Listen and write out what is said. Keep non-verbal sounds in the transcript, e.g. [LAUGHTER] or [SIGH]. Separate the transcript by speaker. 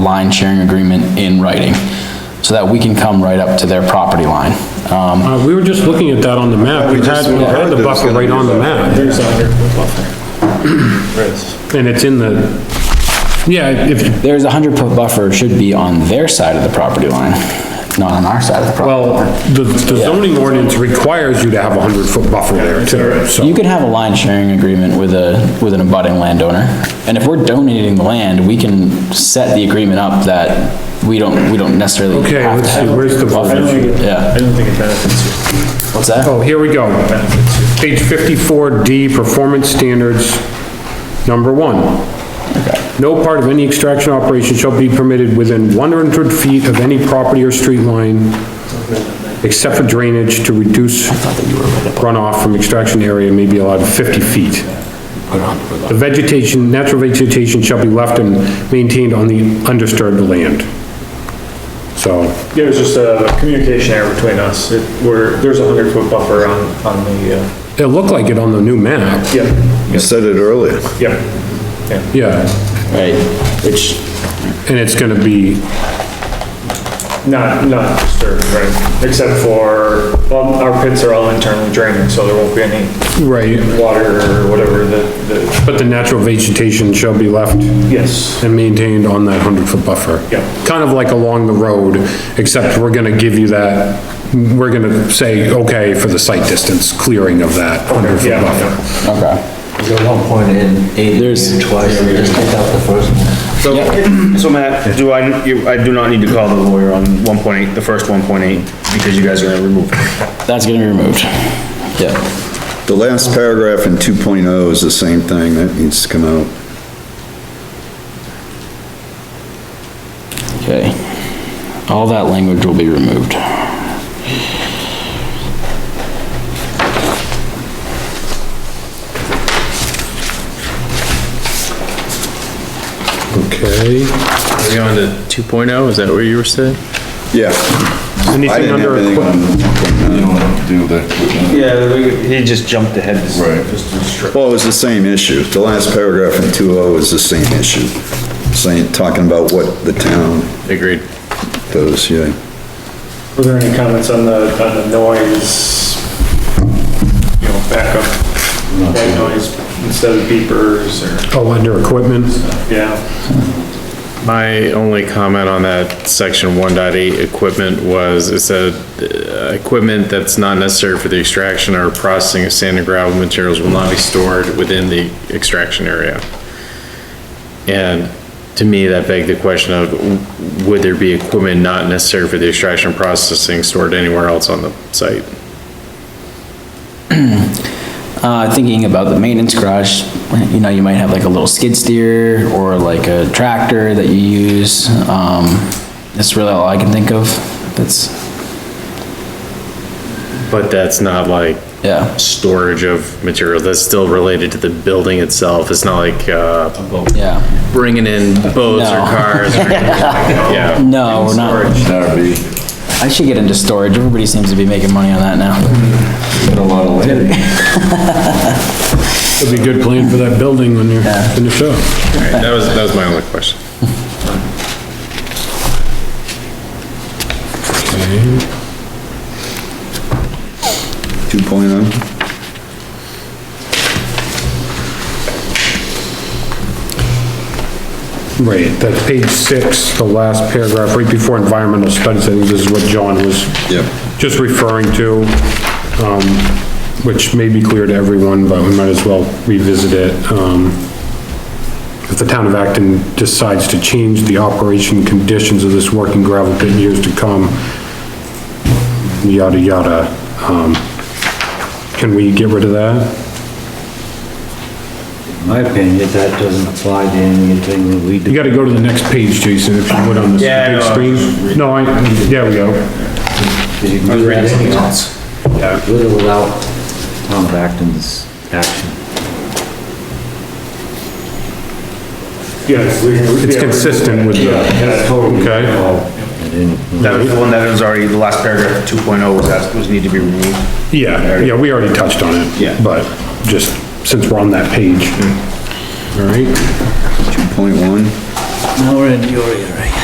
Speaker 1: line sharing agreement in writing, so that we can come right up to their property line. Um,
Speaker 2: Uh, we were just looking at that on the map.
Speaker 3: We
Speaker 2: We had,
Speaker 3: just
Speaker 2: we had
Speaker 3: heard
Speaker 2: the
Speaker 3: that it's
Speaker 2: buffer
Speaker 3: gonna
Speaker 2: right
Speaker 3: be
Speaker 2: on the
Speaker 3: that.
Speaker 2: map. And it's in the, yeah, if,
Speaker 1: There's a hundred foot buffer should be on their side of the property line, not on our side of the property.
Speaker 2: well, the the zoning ordinance requires you to have a hundred foot buffer there too,
Speaker 1: You
Speaker 2: so.
Speaker 1: can have a line sharing agreement with a, with an abutting landowner, and if we're donating the land, we can set the agreement up that we don't, we don't necessarily
Speaker 2: Okay,
Speaker 1: have to
Speaker 2: let's see,
Speaker 1: have.
Speaker 2: where's the buffer?
Speaker 1: Yeah.
Speaker 4: I don't think it benefits you.
Speaker 1: What's that?
Speaker 2: Oh, here we go. Page fifty-four D, performance standards, number one. No part of any extraction operation shall be permitted within one hundred feet of any property or street line except for drainage to reduce runoff from extraction area may be allowed fifty feet. The vegetation, natural vegetation shall be left and maintained on the undisturbed land. So,
Speaker 4: It was just a communication error between us. It, we're, there's a hundred foot buffer on, on the, uh,
Speaker 2: it looked like it on the new map,
Speaker 4: yeah,
Speaker 3: You said it earlier.
Speaker 4: yeah.
Speaker 2: yeah.
Speaker 1: Right, which,
Speaker 2: And it's gonna be,
Speaker 4: Not, not disturbed, right? Except for, well, our pits are all internally draining, so there won't be any
Speaker 2: right,
Speaker 4: water or whatever the, the,
Speaker 2: but the natural vegetation shall be left
Speaker 4: yes,
Speaker 2: and maintained on that hundred foot buffer.
Speaker 4: Yeah.
Speaker 2: Kind of like along the road, except we're gonna give you that, we're gonna say, okay, for the site distance clearing of that hundred foot
Speaker 4: yeah,
Speaker 2: buffer.
Speaker 4: yeah.
Speaker 1: okay.
Speaker 5: There's no point in aiding
Speaker 1: There's-
Speaker 5: you twice, just take out the first one.
Speaker 6: So, so Matt, do I, you- I do not need to call the lawyer on 1.8, the first 1.8, because you guys are gonna remove it.
Speaker 1: That's gonna be removed. Yeah.
Speaker 3: The last paragraph in 2.0 is the same thing, that needs to come out.
Speaker 1: Okay. All that language will be removed.
Speaker 2: Okay.
Speaker 7: Are we on to 2.0? Is that what you were saying?
Speaker 3: Yeah. I
Speaker 2: Anything
Speaker 3: didn't have
Speaker 2: under,
Speaker 3: anything
Speaker 2: equi-
Speaker 3: on 1.9.
Speaker 6: Yeah, he just jumped ahead.
Speaker 3: Well, it was the same issue. The last paragraph in 2.0 is the same issue. Saying, talking about what the town
Speaker 7: Agreed.
Speaker 3: does, yeah.
Speaker 4: Were there any comments on the, on the noise? You know, backup, white noise instead of beepers or,
Speaker 2: oh, under equipment,
Speaker 4: yeah.
Speaker 7: My only comment on that section 1.8 equipment was, it said, uh, equipment that's not necessary for the extraction or processing of sand and gravel materials will not be stored within the extraction area. And to me, that begged the question of, would there be equipment not necessary for the extraction and processing stored anywhere else on the site?
Speaker 1: Uh, thinking about the maintenance garage, you know, you might have like a little skid steer or like a tractor that you use. Um, that's really all I can think of. That's,
Speaker 7: But that's not like
Speaker 1: yeah,
Speaker 7: storage of materials, that's still related to the building itself, it's not like, uh,
Speaker 1: yeah.
Speaker 7: bringing in boats or
Speaker 1: No.
Speaker 7: cars.
Speaker 1: [LAUGHS]
Speaker 7: or anything like that. Yeah,
Speaker 1: No, we're not. I should get into storage. Everybody seems to be making money on that now. [LAUGHS]
Speaker 2: it'd be a good plan for that building when you're finished up.
Speaker 7: Alright, that was, that was my only question.
Speaker 2: Okay.
Speaker 3: 2.0?
Speaker 2: Right, that's page six, the last paragraph, right before environmental studies, I think this is what John was
Speaker 3: Yep.
Speaker 2: just referring to, um, which may be clear to everyone, but we might as well revisit it. Um, if the town of Acton decides to change the operation conditions of this working gravel pit in years to come, yada, yada, um, can we get rid of that?
Speaker 5: In my opinion, that doesn't apply to anything that we
Speaker 2: You
Speaker 5: do.
Speaker 2: gotta go to the next page, Jason, if you would on this
Speaker 6: Yeah, I
Speaker 2: big
Speaker 6: know.
Speaker 2: screen. No, I, there we go.
Speaker 5: You can do that anyhow. With or without Tom Acton's action.
Speaker 4: Yes. we- we-
Speaker 2: It's
Speaker 4: yeah.
Speaker 2: consistent with the-
Speaker 4: Yeah, yeah.
Speaker 2: Okay,
Speaker 6: That was the one that was already, the last paragraph, 2.0 was asked, was need to be removed.
Speaker 2: yeah, yeah, we already touched on it.
Speaker 6: Yeah.
Speaker 2: But just since we're on that page. All right,
Speaker 3: 2.1?
Speaker 5: Now we're in your area.